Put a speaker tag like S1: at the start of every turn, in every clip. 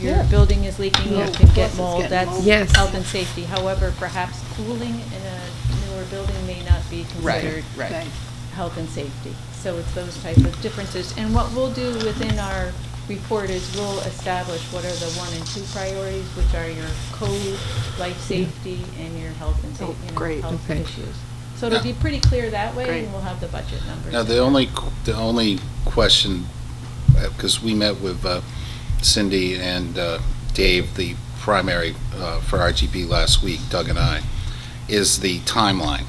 S1: your
S2: Yeah.
S1: building is leaking,
S2: Yeah.
S1: it
S2: Of
S1: can
S2: course
S1: get
S2: it's
S1: mold,
S2: getting
S1: that's
S2: mold.
S3: Yes.
S1: health and safety. However, perhaps cooling in a newer building may not be
S2: Right,
S1: considered
S2: right.
S3: Right.
S1: health and safety. So it's those type of differences. And what we'll do within our report is we'll establish what are the one and two priorities, which are your code, life safety, and your health and
S3: Oh,
S1: safety,
S3: great,
S1: health
S3: okay.
S1: issues. So it'll be
S4: Yeah.
S1: pretty clear that way,
S3: Great.
S1: and we'll have the budget numbers.
S4: Now, the only, qu- the only question, because we met with uh, Cindy and uh, Dave, the primary uh, for RGB last week, Doug and I, is the timeline.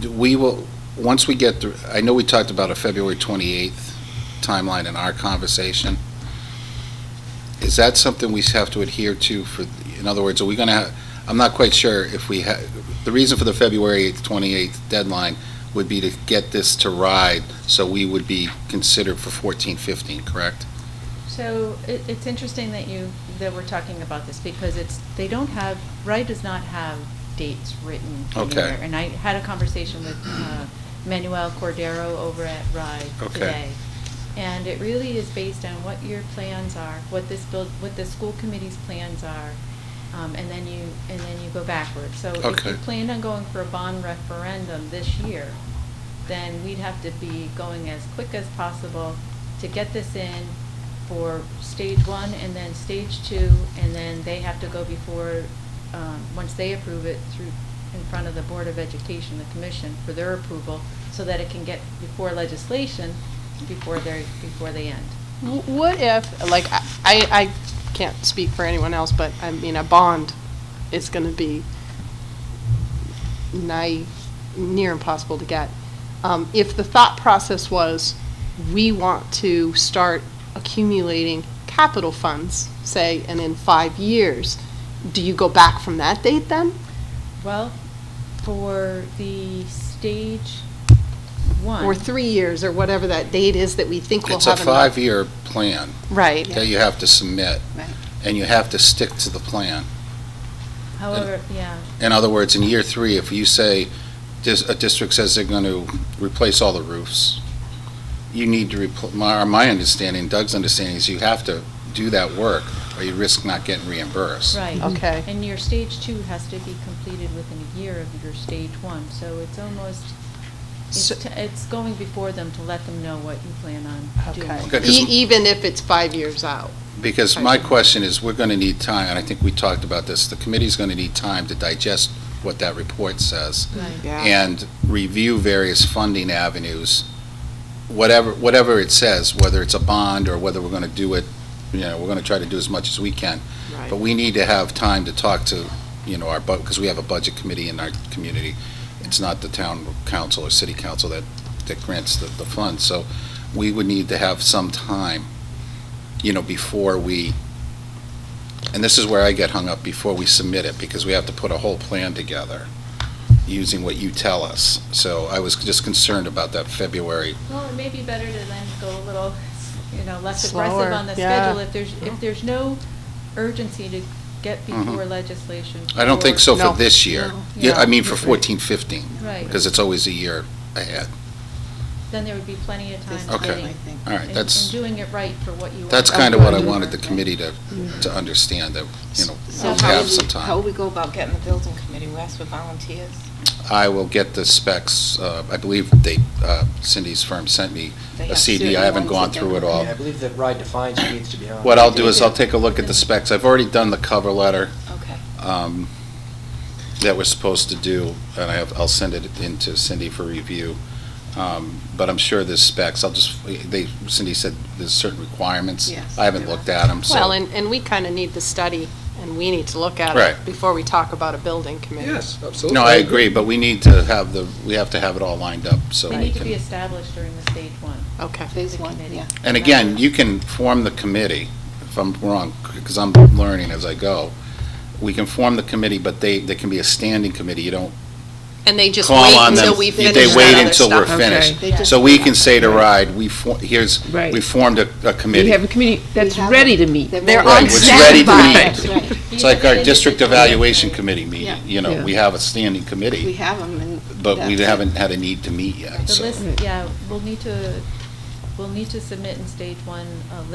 S4: Do We will, once we get, through I know we talked about a February 28th timeline in our conversation. Is that something we have to adhere to for, in other words, are we going to, I'm not quite sure if we, ha- the reason for the February 8th, 28th deadline would be to get this to ride, so we would be considered for 14, 15, correct?
S1: So it, it's interesting that you, that we're talking about this because it's, they don't have, Rye does not have dates written
S4: Okay.
S1: anywhere. And I had a conversation with uh, Manuel Cordero over at Rye
S4: Okay.
S1: today. And it really is based on what your plans are, what this build, what the school committee's plans are. Um, and then you, and then you go backwards. So if
S4: Okay.
S1: you planned on going for a bond referendum this year, then we'd have to be going as quick as possible to get this in for stage one and then stage two, and then they have to go before, um, once they approve it through, in front of the Board of Education, the commission, for their approval, so that it can get before legislation, before they, before they end.
S3: W- What if, like, I, I I can't speak for anyone else, but I mean, a bond is going to be nigh, near impossible to get. Um, If the thought process was, we want to start accumulating capital funds, say, and in five years, do you go back from that date then?
S1: Well, for the stage one.
S3: Or three years, or whatever that date is that we think we'll
S4: It's a
S3: have enough?
S4: five-year plan
S3: Right.
S4: that you have to submit,
S3: Right.
S4: and you have to stick to the plan.
S1: However, yeah,
S4: In other words, in year three, if you say, dis- a district says they're going to replace all the roofs, you need to, repl- my, my understanding, Doug's understanding is you have to do that work, or you risk not getting reimbursed.
S1: right.
S3: Okay.
S1: And your stage two has to be completed within a year of your stage one, so it's almost, it's,
S3: So-
S1: t- it's going before them to let them know what you plan on doing.
S3: Okay.
S4: Okay, 'cause
S3: E-
S4: m-
S3: Even if it's five years out?
S4: Because my question is, we're going to need time, and I think we talked about this, the committee's going to need time to digest what that report says
S1: Right.
S4: and review various funding avenues, whatever, whatever it says, whether it's a bond or whether we're going to do it, you know, we're going to try to do as much as we can. But we need to have time to talk to, you know, our, because we have a budget committee in our community. It's not the town council or city council that, that grants the, the funds. So we would need to have some time, you know, before we, and this is where I get hung up, before we submit it, because we have to put a whole plan together using what you tell us. So I was just concerned about that February.
S1: Well, it may be better to then go a little, you know, less
S3: Slower,
S1: aggressive on the
S3: yeah. Mm-hmm.
S1: schedule if there's, if there's no urgency to get before
S4: Mhm.
S1: legislation.
S4: I don't think
S1: for-
S4: so for
S3: No.
S4: this year.
S3: No.
S4: Yeah, I
S3: Yeah.
S4: mean for 14, 15,
S1: Right,
S4: because it's always a year ahead.
S1: then there would be plenty of time
S3: This
S1: to
S4: Okay.
S1: getting-
S3: I think.
S4: All right,
S1: and-
S4: that's.
S1: And doing it right for what you.
S4: That's
S1: want.
S4: kind of what I wanted the committee to, to understand, that,
S3: Mm.
S4: you know,
S5: So
S4: we'll
S5: how
S4: have
S5: would we,
S4: some
S5: how would
S4: time.
S5: we go about getting the building committee? We ask for volunteers?
S4: I will get the specs, uh, I believe they, uh, Cindy's firm sent me
S5: They
S4: a
S5: have
S4: CD, I
S5: certain
S4: haven't
S5: ones
S4: gone
S5: that they-
S4: through it all.
S6: Yeah, I believe that RIDE defines who needs to be on.
S4: What I'll do is I'll take a look at the specs, I've already done the cover letter,
S5: Okay.
S4: um, that we're supposed to do, and I have, I'll send it in to Cindy for review. Um, But I'm sure there's specs, I'll just, they, Cindy said there's certain requirements.
S3: Yes.
S4: I haven't looked at them, so.
S3: Well, and, and we kind of need the study, and we need to look at
S4: Right.
S3: it before we talk about a building committee.
S6: absolutely.
S4: No, I agree, but we need to have the, we have to have it all lined up, so
S1: They
S4: we
S1: need to be
S4: can.
S1: established during the stage one.
S3: Okay.
S5: Phase one,
S1: committee.
S5: yeah.
S4: And again, you can form the committee, if I'm wrong, because I'm learning as I go. We can form the committee, but they, they can be a standing committee, you don't
S3: And they just
S4: call
S3: wait
S4: on them.
S3: until we
S4: They-
S3: finish
S4: They wait
S3: that other
S4: until we're
S3: stuff.
S4: finished.
S5: They just-
S4: So we can say to RIDE, we, for- here's,
S7: Right.
S4: we formed a, a
S7: We have
S4: committee.
S7: a committee that's
S5: We have
S7: ready
S5: them.
S7: to meet.
S5: They're
S3: They're
S4: Right,
S3: on
S4: which is ready to
S3: standby.
S4: meet.
S5: That's right.
S4: It's like our district evaluation
S1: committee.
S4: committee meeting,
S5: Yeah.
S4: you know,
S7: Yeah.
S4: we have a standing
S5: We
S4: committee,
S5: have them and.
S4: but we
S5: that's it.
S4: haven't had a need to meet yet,
S1: The
S4: so.
S1: list, yeah, we'll need to, we'll need to submit in stage one a list